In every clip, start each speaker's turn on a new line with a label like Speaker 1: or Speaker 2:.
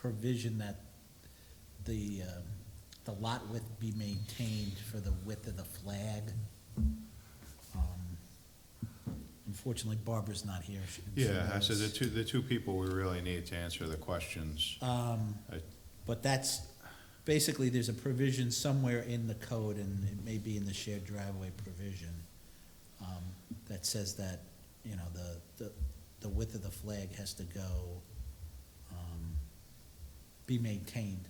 Speaker 1: provision that the, um, the lot width be maintained for the width of the flag. Um, Unfortunately Barbara's not here. She- she
Speaker 2: Yeah, I said the
Speaker 1: knows.
Speaker 2: two, the two people we really need to answer the questions.
Speaker 1: Um,
Speaker 2: I-
Speaker 1: But that's, basically, there's a provision somewhere in the code, and it may be in the shared driveway provision, um, that says that, you know, the, the, the width of the flag has to go, um, be maintained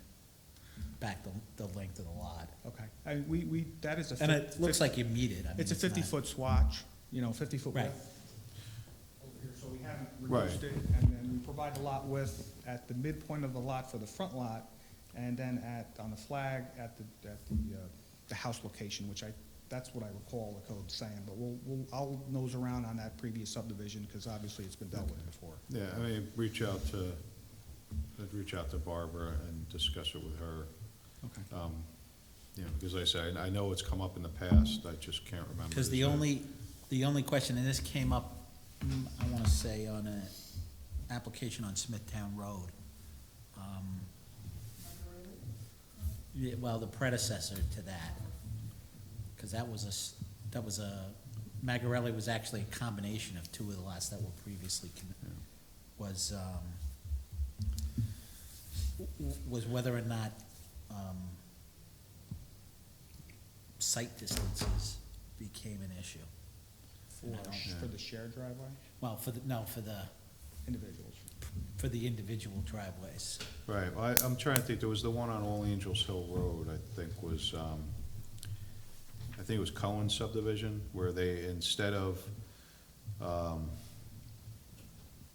Speaker 1: back the, the length of the lot.
Speaker 3: Okay, I, we, we, that is a.
Speaker 1: And
Speaker 3: fif-
Speaker 1: it looks like you meet it, I mean.
Speaker 3: It's a
Speaker 1: not-
Speaker 3: fifty-foot swatch, you know, fifty-foot
Speaker 1: Right.
Speaker 3: width. Over here, so we haven't
Speaker 2: Right.
Speaker 3: reduced it, and then we provide the lot width at the midpoint of the lot for the front lot, and then at, on the flag, at the, at the, uh, the house location, which I, that's what I recall the code saying, but we'll, we'll, I'll nose around on that previous subdivision, because obviously it's been dealt with before.
Speaker 2: Yeah, I mean, reach out to, I'd reach out to Barbara and discuss it with her.
Speaker 3: Okay.
Speaker 2: Um, You know, because like I said, I know it's come up in the past, I just can't remember.
Speaker 1: Because the
Speaker 2: his name.
Speaker 1: only, the only question, and this came up, mm, I want to say, on an application on Smithtown Road. um, yeah, Well, the predecessor to that, because that was a, s- that was a, Magarelli was actually a combination of two of the lots that were previously, con- was, um, w- w- was whether or not um, site distances became an issue.
Speaker 3: For, for the shared driveway,
Speaker 1: Well, for the, no, for the,
Speaker 3: individuals.
Speaker 1: for the individual driveways.
Speaker 2: Right, well, I, I'm trying to think, there was the one on All Angels Hill Road, I think was, um, I think it was Cohen subdivision, where they, instead of, um,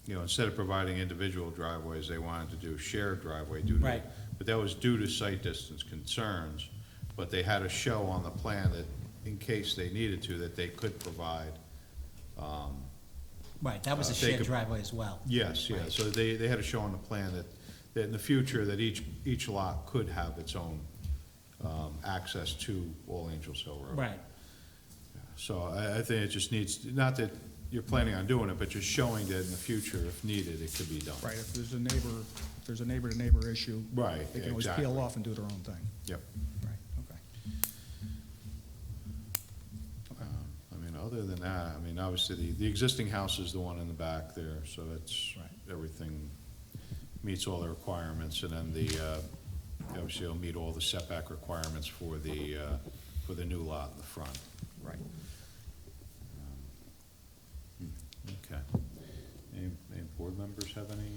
Speaker 2: you know, instead of providing individual driveways, they wanted to do shared driveway due to.
Speaker 1: Right.
Speaker 2: But that was due to site distance concerns, but they had a show on the plan that, in case they needed to, that they could provide.
Speaker 1: Right, that was
Speaker 2: Uh,
Speaker 1: a
Speaker 2: they
Speaker 1: shared
Speaker 2: could-
Speaker 1: driveway as well.
Speaker 2: Yes, yeah,
Speaker 1: Right.
Speaker 2: so they, they had a show on the plan that, that in the future, that each, each lot could have its own, um, access to All Angels Hill Road.
Speaker 1: Right,
Speaker 2: So I, I think it just needs, not that you're planning on doing it, but just showing that in the future, if needed, it could be done.
Speaker 3: Right, if there's a neighbor, if there's a neighbor-to-neighbor issue.
Speaker 2: Right,
Speaker 3: They can always peel
Speaker 2: exactly.
Speaker 3: off and do their own thing.
Speaker 2: Yep.
Speaker 3: Right, okay.
Speaker 2: Um, I mean, other than that, I mean, obviously, the, the existing house is the one in the back there, so it's,
Speaker 3: Right.
Speaker 2: everything meets all the requirements, and then the, uh, obviously, it'll meet all the setback requirements for the, uh, for the new lot in the front.
Speaker 3: Right.
Speaker 2: Okay. Any, any board members have any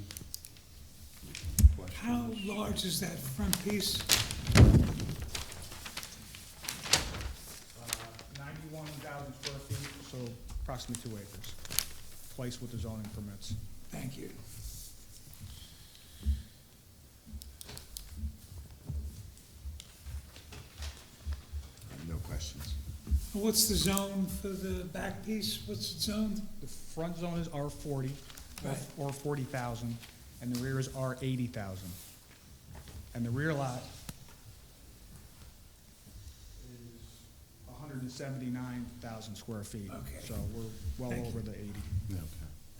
Speaker 2: questions?
Speaker 4: How large is that front piece?
Speaker 3: Uh, Ninety-one thousand square feet, so approximately two acres, place with the zoning permits.
Speaker 4: Thank you.
Speaker 5: No questions.
Speaker 4: What's the zone for the back piece? What's it zoned?
Speaker 3: The front zone is R forty,
Speaker 4: Right.
Speaker 3: or forty thousand, and the rear is R eighty thousand. And the rear lot is hundred and seventy-nine thousand square feet.
Speaker 4: Okay.
Speaker 3: So we're well
Speaker 4: Thank you.
Speaker 3: over the eighty.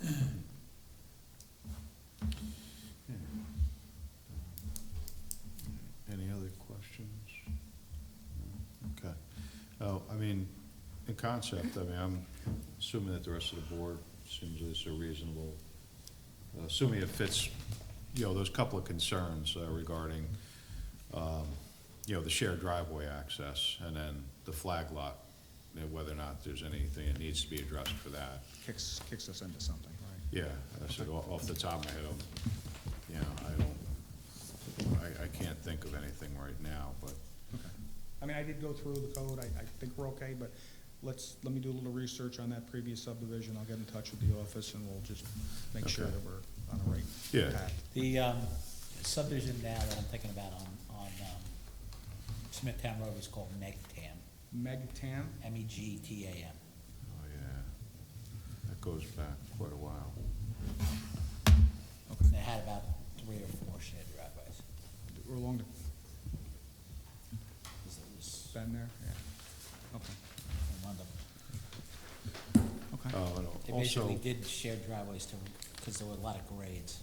Speaker 2: Okay. Any other questions? No? Okay. Oh, I mean, in concept, I mean, I'm assuming that the rest of the board seems it's a reasonable, uh, assuming it fits, you know, those couple of concerns uh, regarding, um, you know, the shared driveway access and then the flag lot, you know, whether or not there's anything that needs to be addressed for that.
Speaker 3: Kicks, kicks us into something, right?
Speaker 2: Yeah, I said, off off the top of my head, I'm, you know, I don't, I, I can't think of anything right now, but,
Speaker 3: Okay. I mean, I did go through the code, I, I think we're okay, but let's, let me do a little research on that previous subdivision, I'll get in touch with the office and we'll just make sure
Speaker 2: Okay.
Speaker 3: that we're on the right
Speaker 2: Yeah.
Speaker 3: path.
Speaker 1: the um, subdivision now that I'm thinking about on, on um, Smithtown Road is called Megtam,
Speaker 3: Megtam,
Speaker 1: M E G T A M.
Speaker 2: oh yeah, that goes back quite a while.
Speaker 1: And They had about three or four shared driveways,
Speaker 3: we're along the,
Speaker 1: 'cause it was
Speaker 3: bend there, yeah. Okay,
Speaker 1: one of them.
Speaker 3: okay,
Speaker 2: Oh, and
Speaker 1: They
Speaker 2: also,
Speaker 3: Uh,
Speaker 1: basically did shared driveways to, because there were a lot of grades.